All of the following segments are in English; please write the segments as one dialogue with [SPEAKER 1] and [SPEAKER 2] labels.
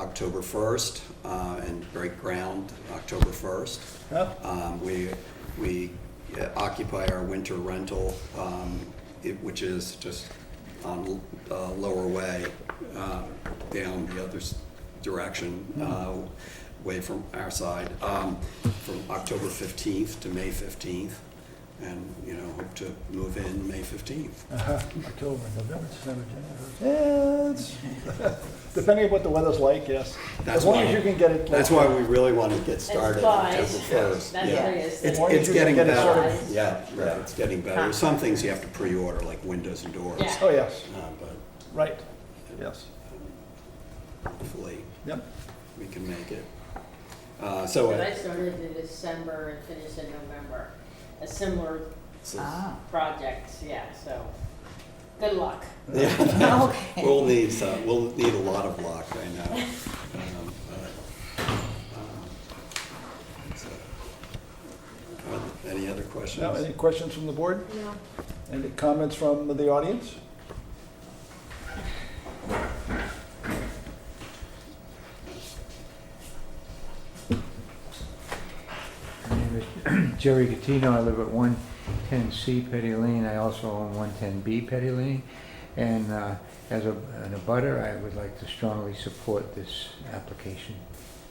[SPEAKER 1] October 1st uh, and break ground October 1st.
[SPEAKER 2] Oh.
[SPEAKER 1] Um, We, we uh, occupy our winter rental, um, it- which is just on uh, Lower Way, uh, down the other s- direction, uh, way from our side, um, from October 15th to May 15th. And, you know, hope to move in May 15th.
[SPEAKER 2] Uh-huh, October, November, December, January. Yeah, it's- Depending on what the weather's like, yes.
[SPEAKER 1] That's
[SPEAKER 2] As long
[SPEAKER 1] why-
[SPEAKER 2] as you can get it. like-
[SPEAKER 1] That's why we really want to get started on
[SPEAKER 3] It's
[SPEAKER 1] October
[SPEAKER 3] live.
[SPEAKER 1] 1st.
[SPEAKER 3] That's
[SPEAKER 1] Yeah.
[SPEAKER 3] what it is.
[SPEAKER 1] It's,
[SPEAKER 2] As long as
[SPEAKER 1] it's
[SPEAKER 2] you can
[SPEAKER 1] getting
[SPEAKER 2] get it
[SPEAKER 1] better.
[SPEAKER 3] sorted.
[SPEAKER 1] Yeah, right,
[SPEAKER 2] Yeah.
[SPEAKER 1] it's getting better. Some things you have to pre-order, like windows and doors.
[SPEAKER 3] Yeah.
[SPEAKER 2] Oh, yes,
[SPEAKER 1] Uh, But
[SPEAKER 2] right, yes,
[SPEAKER 1] hopefully,
[SPEAKER 2] yep.
[SPEAKER 1] we can make it. Uh, So,
[SPEAKER 3] But I
[SPEAKER 1] uh,
[SPEAKER 3] started in December and finished in November, a similar
[SPEAKER 1] so-
[SPEAKER 4] Ah.
[SPEAKER 3] project, yeah, so, good luck.
[SPEAKER 1] Yeah.
[SPEAKER 5] Okay.
[SPEAKER 1] We'll need some, we'll need a lot of luck, I know. Um, but, um, so, uh, Any other questions?
[SPEAKER 2] Now, any questions from the board? No. Any comments from the audience?
[SPEAKER 4] My name is Jerry Gattino, I live at 110C Petty Lane, I also own 110B Petty Lane. And uh, as a, an abutter, I would like to strongly support this application.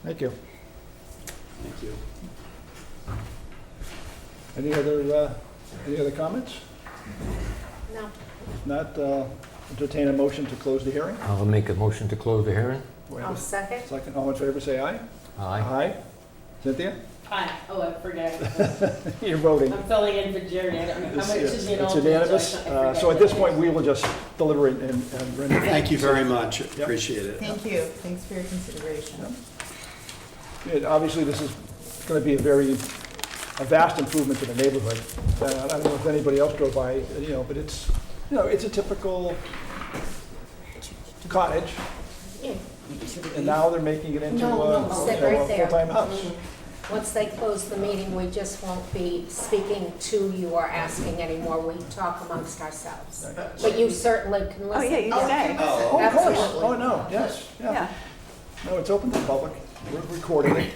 [SPEAKER 2] Thank you.
[SPEAKER 1] Thank you.
[SPEAKER 2] Any other, uh, any other comments?
[SPEAKER 3] No.
[SPEAKER 2] If Not, uh, entertain a motion to close the hearing?
[SPEAKER 6] I'll make a motion to close the hearing.
[SPEAKER 2] Wait a
[SPEAKER 5] I'll second.
[SPEAKER 2] Second, all in favor, say aye.
[SPEAKER 6] Aye.
[SPEAKER 2] Cynthia,
[SPEAKER 3] Hi, oh, I forgot,
[SPEAKER 2] you're voting.
[SPEAKER 3] I'm filling in for Jerry, I don't know, I'm
[SPEAKER 2] It's- uh,
[SPEAKER 3] actually an alternate.
[SPEAKER 2] It's
[SPEAKER 3] so
[SPEAKER 2] unanimous.
[SPEAKER 3] I thought- I
[SPEAKER 2] Uh, So
[SPEAKER 3] forgot
[SPEAKER 2] at this
[SPEAKER 3] that.
[SPEAKER 2] point, we will just deliver it and and render. it.
[SPEAKER 1] Thank you very much, appreciate it.
[SPEAKER 5] Thank you. Thanks for your consideration.
[SPEAKER 2] Yeah, Obviously, this is going to be a very, a vast improvement to the neighborhood. Uh, I don't know if anybody else drove by, you know, but it's, you know, it's a typical cottage, and now they're making it into
[SPEAKER 7] No,
[SPEAKER 2] a
[SPEAKER 7] no,
[SPEAKER 2] you
[SPEAKER 7] sit
[SPEAKER 2] know,
[SPEAKER 7] right
[SPEAKER 2] a
[SPEAKER 7] there. Mm-hmm.
[SPEAKER 2] full-time house.
[SPEAKER 7] Once they close the meeting, we just won't be speaking to you or asking anymore. We talk amongst ourselves. But you certainly can listen.
[SPEAKER 5] Oh, yeah, you can.
[SPEAKER 2] Oh, of course.
[SPEAKER 7] Absolutely.
[SPEAKER 2] Oh, no, yes, yeah.
[SPEAKER 5] Yeah.
[SPEAKER 2] No, it's open to the public. We're recording it.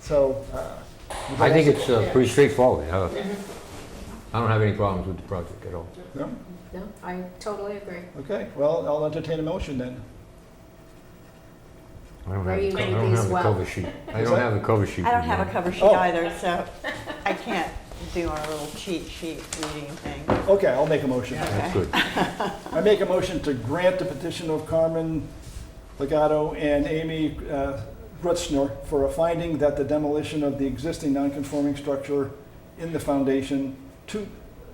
[SPEAKER 2] So. uh,
[SPEAKER 6] I think it's uh, pretty straightforward. Uh, I don't have any problems with the project at all.
[SPEAKER 2] No?
[SPEAKER 7] No, I totally agree.
[SPEAKER 2] Okay, well, I'll entertain a motion then.
[SPEAKER 6] I don't
[SPEAKER 7] Are
[SPEAKER 6] have,
[SPEAKER 7] you
[SPEAKER 6] the co- I
[SPEAKER 7] gonna
[SPEAKER 6] don't
[SPEAKER 7] be
[SPEAKER 6] have
[SPEAKER 7] as
[SPEAKER 6] the
[SPEAKER 7] well?
[SPEAKER 6] cover sheet. I
[SPEAKER 2] Is
[SPEAKER 6] don't
[SPEAKER 2] that-
[SPEAKER 6] have the cover sheet.
[SPEAKER 8] I don't
[SPEAKER 6] with me.
[SPEAKER 8] have a cover sheet
[SPEAKER 2] Oh.
[SPEAKER 8] either, so I can't do our little cheat sheet reading thing.
[SPEAKER 2] Okay, I'll make a motion.
[SPEAKER 6] That's good.
[SPEAKER 2] I make a motion to grant the petition of Carmen Legato and Amy uh, Grutzner for a finding that the demolition of the existing nonconforming structure in the foundation to,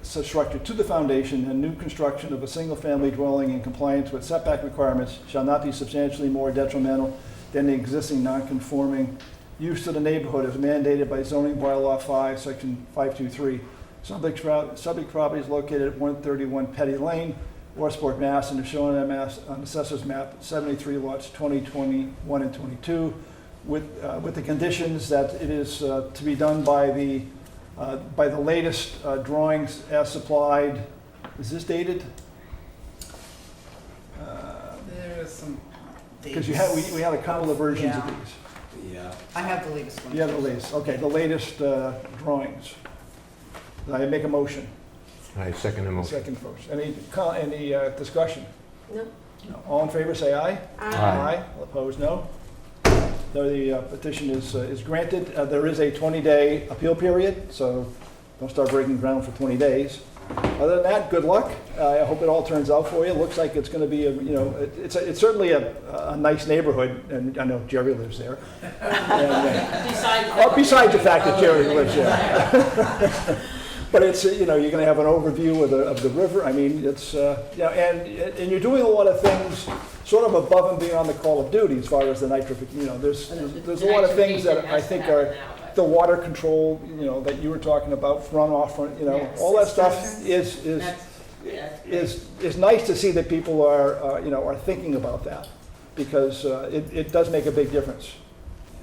[SPEAKER 2] so structure to the foundation and new construction of a single-family dwelling in compliance with setback requirements shall not be substantially more detrimental than the existing nonconforming use to the neighborhood as mandated by zoning bylaw 5, section 523. Subject pro- subject property is located at 131 Petty Lane, Westport, Mass., and is shown on Mass, on Assessor's Map 73 lots 20, 21, and 22, with, uh, with the conditions that it is uh, to be done by the, uh, by the latest uh, drawings as supplied. Is this dated?
[SPEAKER 9] There is some dates.
[SPEAKER 2] Because you had, we we had a couple of versions of
[SPEAKER 8] Yeah.
[SPEAKER 2] these.
[SPEAKER 1] Yeah.
[SPEAKER 8] I have the latest one.
[SPEAKER 2] Yeah, the latest, okay, the latest uh, drawings. I make a motion,
[SPEAKER 6] I second the motion.
[SPEAKER 2] second first. Any, co- any uh, discussion?
[SPEAKER 7] No?
[SPEAKER 2] No. All in favor, say aye.
[SPEAKER 6] Aye.
[SPEAKER 2] All Opposed, no. So The uh, petition is, uh, is granted. Uh, There is a 20-day appeal period, so don't start breaking ground for 20 days. Other than that, good luck. Uh, I hope it all turns out for you. Looks like it's going to be, a you know, it- it's, a- it's certainly a, a nice neighborhood, and I know Jerry lives there. And, uh,
[SPEAKER 3] Besides.
[SPEAKER 2] Oh, besides the fact that Jerry lives there. But it's, uh, you know, you're gonna have an overview of the, of the river, I mean, it's, uh, you know, and, and you're doing a lot of things sort of above and beyond the call of duty as far as the nitrification, you know, there's, there's a lot of things that I think are, the water control, you know, that you were talking about, runoff, run- you know,
[SPEAKER 3] Yes.
[SPEAKER 2] all that stuff is, is
[SPEAKER 3] That's, yeah.
[SPEAKER 2] is, is nice to see that people are, uh, you know, are thinking about that, because uh, it, it does make a big difference,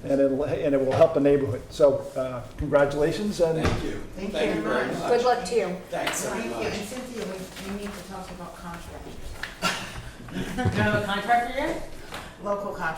[SPEAKER 2] and it'll, and it will help the neighborhood. So uh, congratulations, and
[SPEAKER 1] Thank you.
[SPEAKER 5] Thank
[SPEAKER 1] Thank you
[SPEAKER 5] you.
[SPEAKER 1] very much.
[SPEAKER 7] Good luck to you.
[SPEAKER 1] Thanks so
[SPEAKER 5] Thank you.
[SPEAKER 1] much.
[SPEAKER 5] And Cynthia, we, we need to talk about contractors.
[SPEAKER 3] Do you have a contractor yet?
[SPEAKER 9] local contractors